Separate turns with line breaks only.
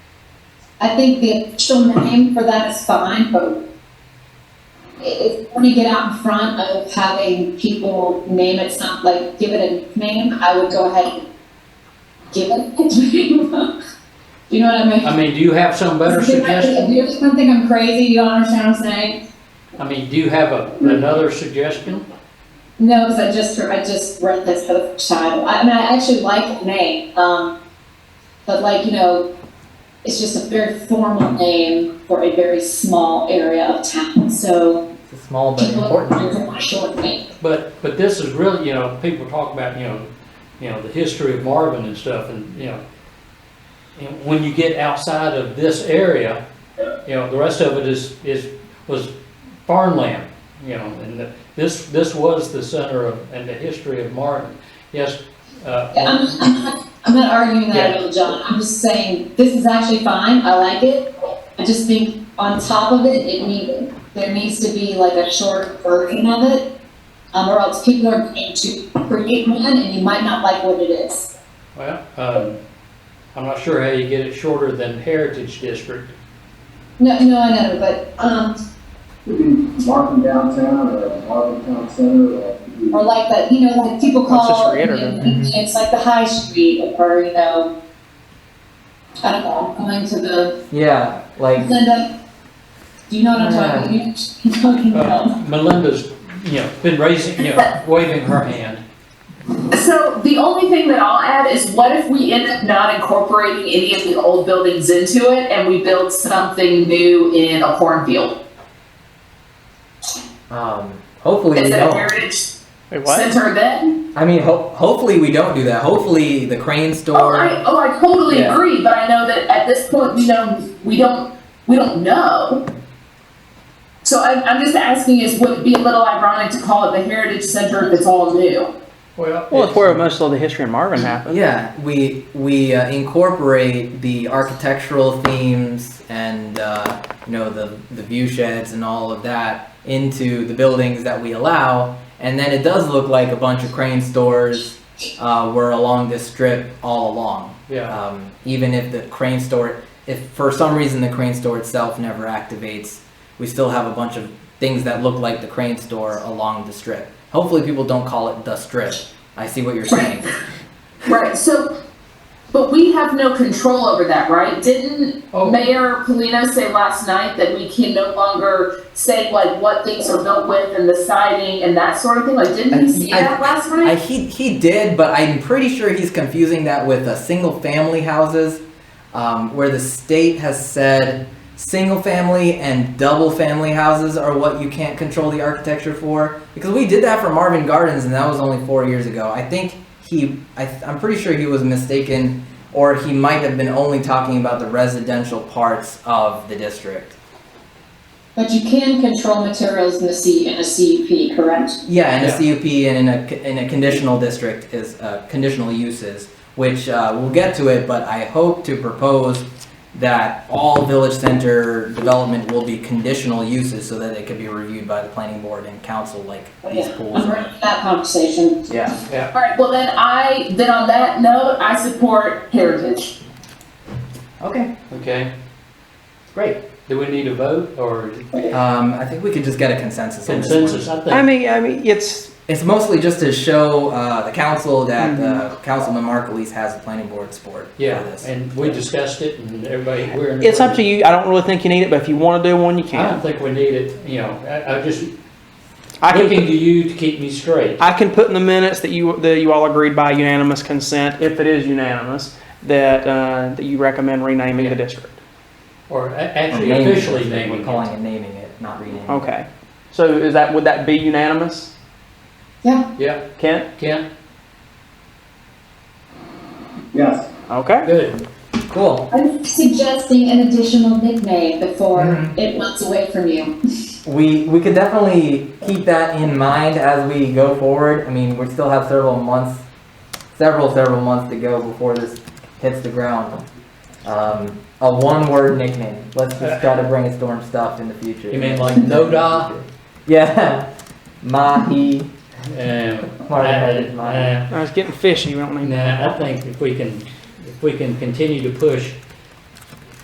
I think the official name for that is fine, but i- if you want to get out in front of having people name it some, like, give it a nickname, I would go ahead and give it a nickname. You know what I mean?
I mean, do you have some better
Because if I-
suggestion?
if You just don't think I'm crazy, you don't understand what I'm saying?
I mean, do you have a, another suggestion?
No, because I just, I just read this for the first time. I I mean, I actually like the name, um, but like, you know, it's just a very formal name for a very small area of town, so
It's a small but
people
important
are
area.
from my short name.
But, but this is really, you know, people talk about, you know, you know, the history of Marvin and stuff and, you know, and when you get outside of this area, you know, the rest of it is, is, was farmland, you know, and the- this, this was the center of, and the history of Marvin. Yes, uh,
Yeah, I'm, I'm not, I'm not arguing that at all, John. I'm just saying, this is actually fine, I like it. I just think on top of it, it need, there needs to be like a short version of it. Um, or else people are going to create one and you might not like what it is.
well, um, I'm not sure how you get it shorter than Heritage District.
No, no, I know, but, um,
Could be Marvin downtown or Marvin town center or. could be-
or like that, you know, like people
Let's just
call, it,
reiterate.
it's like the high street or, you know, I don't know, going to the,
Yeah, like
Linda, do you know what I'm talking, you know what I'm talking about?
Uh, Melinda's, you know, been raising, you know, waving her hand.
So the only thing that I'll add is what if we end up not incorporating any of the old buildings into it and we build something new in a cornfield?
um, hopefully we
Is it a
don't.
heritage
Wait, what?
center then?
I mean, ho- hopefully we don't do that. Hopefully the crane
Oh,
store.
I, oh, I totally
Yeah.
agree, but I know that at this point, we don't, we don't, we don't know. So I, I'm just asking is would it be a little ironic to call it the heritage center if it's all new?
Well, it's where
it's-
most of the history in Marvin happened.
Yeah, we we uh, incorporate the architectural themes and uh, you know the the view sheds and all of that into the buildings that we allow, and then it does look like a bunch of crane stores uh, were along this strip all along.
Yeah,
Um, even if the crane store, if for some reason the crane store itself never activates, we still have a bunch of things that look like the crane store along the strip. Hopefully, people don't call it the strip. I see what you're saying.
Right, so, but we have no control over that, right? Didn't
oh,
Mayor Polino said last night that we can no longer say like what things are built with and the siding and that sort of thing, like didn't
I-
he say
I-
that last
I,
night?
he he did, but I'm pretty sure he's confusing that with uh, single family houses, um, where the state has said single family and double family houses are what you can't control the architecture for. Because we did that for Marvin Gardens, and that was only four years ago. I think he, I, I'm pretty sure he was mistaken, or he might have been only talking about the residential parts of the district.
But you can control materials in a C, in a CUP, correct?
Yeah, and
Yeah.
a CUP and in a, in a conditional district is uh, conditional uses, which uh, we'll get to it, but I hope to propose that all village center development will be conditional uses so that it can be reviewed by the planning board and council like these pools.
I'm ready for that conversation.
Yeah,
Alright, well then I, then on that note, I support Heritage.
okay,
okay.
great.
Do we need a vote or
Um, I think we could just get a consensus on this one.
consensus? I
I
think,
mean, I mean, it's
It's mostly just to show uh, the council that uh, Councilman Markleese has the planning board support for
yeah,
this.
and we discussed it and everybody, we're. in
it's up to
agreement.
you. I don't really think you need it, but if you want to do one, you
I don't
can.
think we need it, you know, I, I just,
I Oh. can.
looking to you to keep me straight.
I can put in the minutes that you that you all agreed by unanimous consent, if it is unanimous, that uh, that you recommend renaming the district.
Or a-
Or
actually
naming it.
officially naming
We're
it.
calling it naming it, not renaming it.
Okay. So is that would that be unanimous,
Yeah,
Kent?
Kent,
Yes,
Okay.
good.
Cool.
I'm suggesting an additional nickname before
Mhm.
it runs away from you.
We we could definitely keep that in mind as we go forward. I mean, we still have several months, several several months to go before this hits the ground. Um, a one-word nickname. Let's just try to brainstorm stuff in the future.
You mean like Noda?
Yeah, Mahi.
Um,
Marvin had it in
I-
mind.
I-
Now it's getting fishy. We don't need that.
Nah, I think if we can, if we can continue to push